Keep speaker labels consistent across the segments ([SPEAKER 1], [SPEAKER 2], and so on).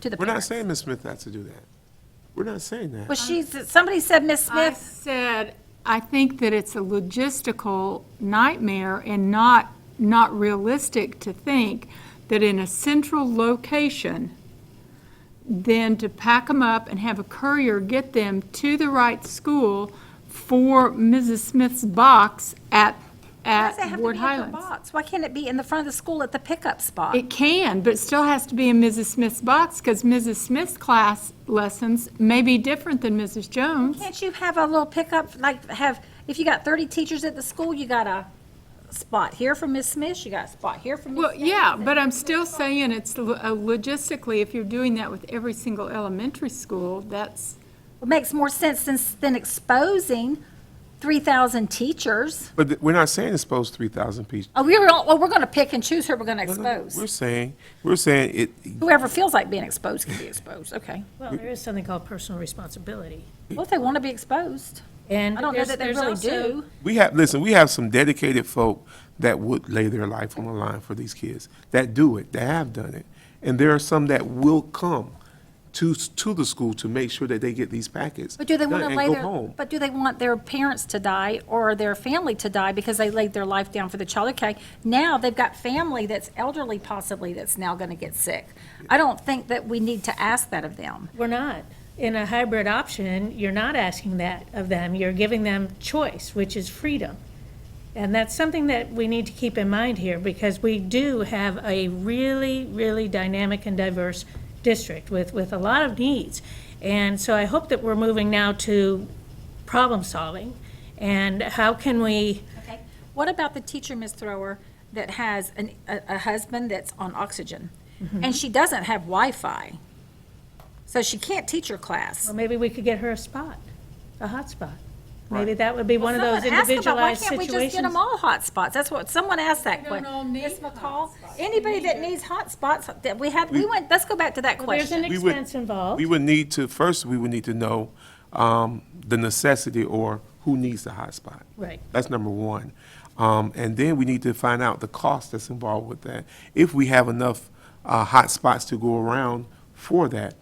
[SPEAKER 1] to the
[SPEAKER 2] We're not
[SPEAKER 1] parents.
[SPEAKER 2] saying Ms. Smith not to do that. We're not saying
[SPEAKER 1] Well,
[SPEAKER 2] that.
[SPEAKER 1] she, somebody said Miss
[SPEAKER 3] I
[SPEAKER 1] Smith,
[SPEAKER 3] said, I think that it's a logistical nightmare and not, not realistic to think that in a central location, then to pack them up and have a courier get them to the right school for Mrs. Smith's box at,
[SPEAKER 1] why does it
[SPEAKER 3] at
[SPEAKER 1] have to
[SPEAKER 3] Ward
[SPEAKER 1] be in her
[SPEAKER 3] Highlands.
[SPEAKER 1] box? Why can't it be in the front of the school at the pickup spot?
[SPEAKER 3] It can, but it still has to be in Mrs. Smith's box because Mrs. Smith's class lessons may be different than Mrs. Jones.
[SPEAKER 1] Can't you have a little pickup, like have, if you got thirty teachers at the school, you got a spot here for Miss Smith, you got a spot here for Miss
[SPEAKER 3] Well,
[SPEAKER 1] Smith.
[SPEAKER 3] yeah, but I'm still saying it's lo- uh, logistically, if you're doing that with every single elementary school, that's,
[SPEAKER 1] It Makes more sense than, than exposing three thousand teachers.
[SPEAKER 2] But th- we're not saying expose 3,000 people.
[SPEAKER 1] Oh, we're, all- well, we're gonna pick and choose who we're gonna
[SPEAKER 2] No, no, no. We're
[SPEAKER 1] expose.
[SPEAKER 2] saying, we're saying it,
[SPEAKER 1] Whoever feels like being exposed can be exposed, okay.
[SPEAKER 4] Well, there is something called personal responsibility.
[SPEAKER 1] Well, if they wanna be exposed,
[SPEAKER 4] And
[SPEAKER 1] I don't know
[SPEAKER 4] there's-
[SPEAKER 1] that they
[SPEAKER 4] there's
[SPEAKER 1] really
[SPEAKER 4] also-
[SPEAKER 1] do.
[SPEAKER 2] we have, listen, we have some dedicated folk that would lay their life on the line for these kids, that do it, that have done it. And there are some that will come to, s- to the school to make sure that they get these packets.
[SPEAKER 1] But do they
[SPEAKER 2] done
[SPEAKER 1] want to
[SPEAKER 2] and
[SPEAKER 1] lay
[SPEAKER 2] go
[SPEAKER 1] their,
[SPEAKER 2] home.
[SPEAKER 1] but do they want their parents to die or their family to die because they laid their life down for the child? Okay, now they've got family that's elderly possibly that's now going to get sick. I don't think that we need to ask that of them.
[SPEAKER 4] We're not. In a hybrid option, you're not asking that of them. You're giving them choice, which is freedom. And that's something that we need to keep in mind here because we do have a really, really dynamic and diverse district with, with a lot of needs. And so I hope that we're moving now to problem solving and how can we,
[SPEAKER 1] Okay. What about the teacher, Ms. Thrower, that has an, a, a husband that's on oxygen and she doesn't have Wi-Fi? So she can't teach her class.
[SPEAKER 4] well, maybe we could get her a spot, a hot spot. Maybe that would be one of those
[SPEAKER 1] Someone asked about why
[SPEAKER 4] individualized
[SPEAKER 1] can't we
[SPEAKER 4] situations.
[SPEAKER 1] just get them all hotspots? That's what, someone asked that question. Ms. McCall, anybody that needs hotspots, that we had, we went, let's go back to that
[SPEAKER 4] There's an
[SPEAKER 1] question.
[SPEAKER 2] We would-
[SPEAKER 4] expense involved.
[SPEAKER 2] We would need to, first, we would need to know um, the necessity or who needs the hotspot.
[SPEAKER 4] Right.
[SPEAKER 2] That's number one. Um, And then we need to find out the cost that's involved with that, if we have enough uh, hotspots to go around for that.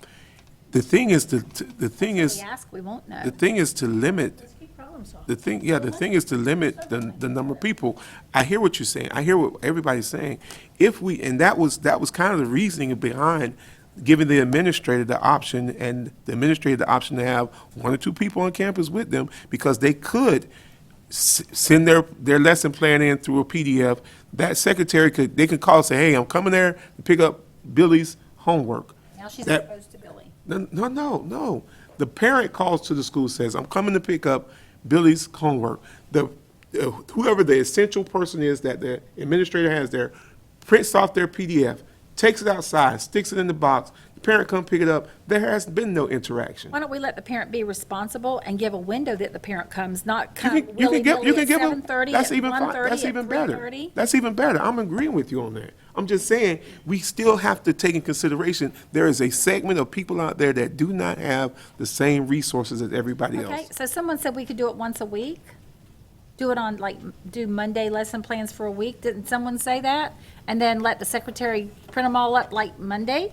[SPEAKER 2] The thing is, to- to- the thing
[SPEAKER 1] We
[SPEAKER 2] is,
[SPEAKER 1] ask, we won't know.
[SPEAKER 2] the thing is to limit
[SPEAKER 4] Keep problem solving.
[SPEAKER 2] the thing, yeah, the thing is to limit the, the number of people. I hear what you're saying. I hear what everybody's saying. If we, and that was, that was kind of the reasoning behind giving the administrator the option and the administrator the option to have one or two people on campus with them because they could s- send their, their lesson plan in through a PDF. That secretary could, they could call and say, hey, I'm coming there to pick up Billy's homework.
[SPEAKER 1] Now she's
[SPEAKER 2] That-
[SPEAKER 1] exposed to Billy.
[SPEAKER 2] no, no, no, no. The parent calls to the school, says, I'm coming to pick up Billy's homework. The, uh, whoever the essential person is that the administrator has there, prints off their PDF, takes it outside, sticks it in the box. The parent come pick it up. There has been no interaction.
[SPEAKER 1] Why don't we let the parent be responsible and give a window that the parent comes, not
[SPEAKER 2] You
[SPEAKER 1] come
[SPEAKER 2] can, you can give, you
[SPEAKER 1] willy-nilly
[SPEAKER 2] can
[SPEAKER 1] at
[SPEAKER 2] give
[SPEAKER 1] seven
[SPEAKER 2] them,
[SPEAKER 1] thirty, at
[SPEAKER 2] that's even,
[SPEAKER 1] one
[SPEAKER 2] fi- that's
[SPEAKER 1] thirty, at
[SPEAKER 2] even
[SPEAKER 1] three
[SPEAKER 2] better.
[SPEAKER 1] thirty?
[SPEAKER 2] That's even better. I'm agreeing with you on that. I'm just saying, we still have to take in consideration, there is a segment of people out there that do not have the same resources as everybody else.
[SPEAKER 1] Okay, so someone said we could do it once a week? Do it on, like, do Monday lesson plans for a week? Didn't someone say that? And then let the secretary print them all up like Monday?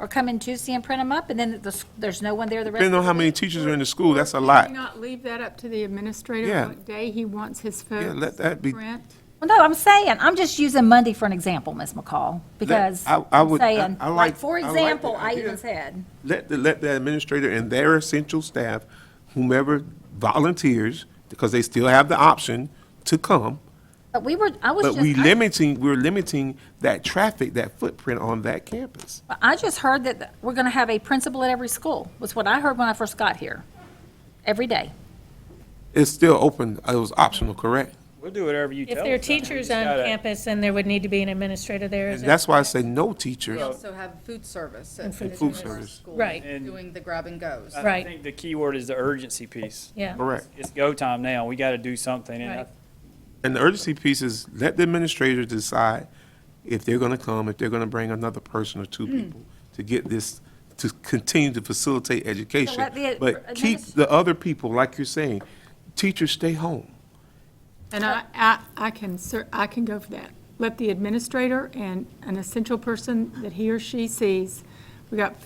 [SPEAKER 1] Or come in Tuesday and print them up, and then the s- there's no one there the rest of
[SPEAKER 2] Depending
[SPEAKER 1] the
[SPEAKER 2] on how
[SPEAKER 1] week?
[SPEAKER 2] many teachers are in the school, that's a lot.
[SPEAKER 3] Can we not leave that up to the administrator
[SPEAKER 2] Yeah.
[SPEAKER 3] what day he wants his folks
[SPEAKER 2] Yeah, let that be-
[SPEAKER 3] to print?
[SPEAKER 1] Well, no, I'm saying, I'm just using Monday for an example, Ms. McCall, because
[SPEAKER 2] I- I
[SPEAKER 1] I'm
[SPEAKER 2] would- I-
[SPEAKER 1] saying,
[SPEAKER 2] I
[SPEAKER 1] like,
[SPEAKER 2] like-
[SPEAKER 1] for
[SPEAKER 2] I like the
[SPEAKER 1] example, I
[SPEAKER 2] idea.
[SPEAKER 1] even said,
[SPEAKER 2] Let the, let the administrator and their essential staff, whomever volunteers, because they still have the option to come,
[SPEAKER 1] but we were, I was
[SPEAKER 2] but
[SPEAKER 1] just.
[SPEAKER 2] we
[SPEAKER 1] I-
[SPEAKER 2] limiting, we're limiting that traffic, that footprint on that campus.
[SPEAKER 1] I just heard that we're going to have a principal at every school, was what I heard when I first got here, every day.
[SPEAKER 2] It's still open, it was optional, correct?
[SPEAKER 5] We'll do whatever you tell
[SPEAKER 4] If
[SPEAKER 5] us.
[SPEAKER 4] there are
[SPEAKER 5] I mean, we
[SPEAKER 4] teachers
[SPEAKER 5] just
[SPEAKER 4] on
[SPEAKER 5] gotta-
[SPEAKER 4] campus, then there would need to be an administrator there. is
[SPEAKER 2] And
[SPEAKER 4] it?
[SPEAKER 2] that's why I say no teachers.
[SPEAKER 6] also have food service at
[SPEAKER 4] food
[SPEAKER 6] at
[SPEAKER 2] service.
[SPEAKER 6] some of our
[SPEAKER 2] Right.
[SPEAKER 6] schools
[SPEAKER 4] And-
[SPEAKER 6] Doing the grab and goes.
[SPEAKER 4] Right.
[SPEAKER 5] I think the key word is the urgency piece.
[SPEAKER 4] Yeah.
[SPEAKER 2] Correct.
[SPEAKER 5] It's go time now. We got to do something. And I
[SPEAKER 4] Right.
[SPEAKER 2] And the urgency piece is let the administrators decide if they're gonna come, if they're gonna bring another person or
[SPEAKER 1] Hmm.
[SPEAKER 2] two people to get this, to continue to facilitate education.
[SPEAKER 1] let the
[SPEAKER 2] But keep
[SPEAKER 1] administ-
[SPEAKER 2] the other people, like you're saying, teachers stay home.
[SPEAKER 3] And I, I, I can cer, I can go for that. Let the administrator and an essential person that he or she sees, we got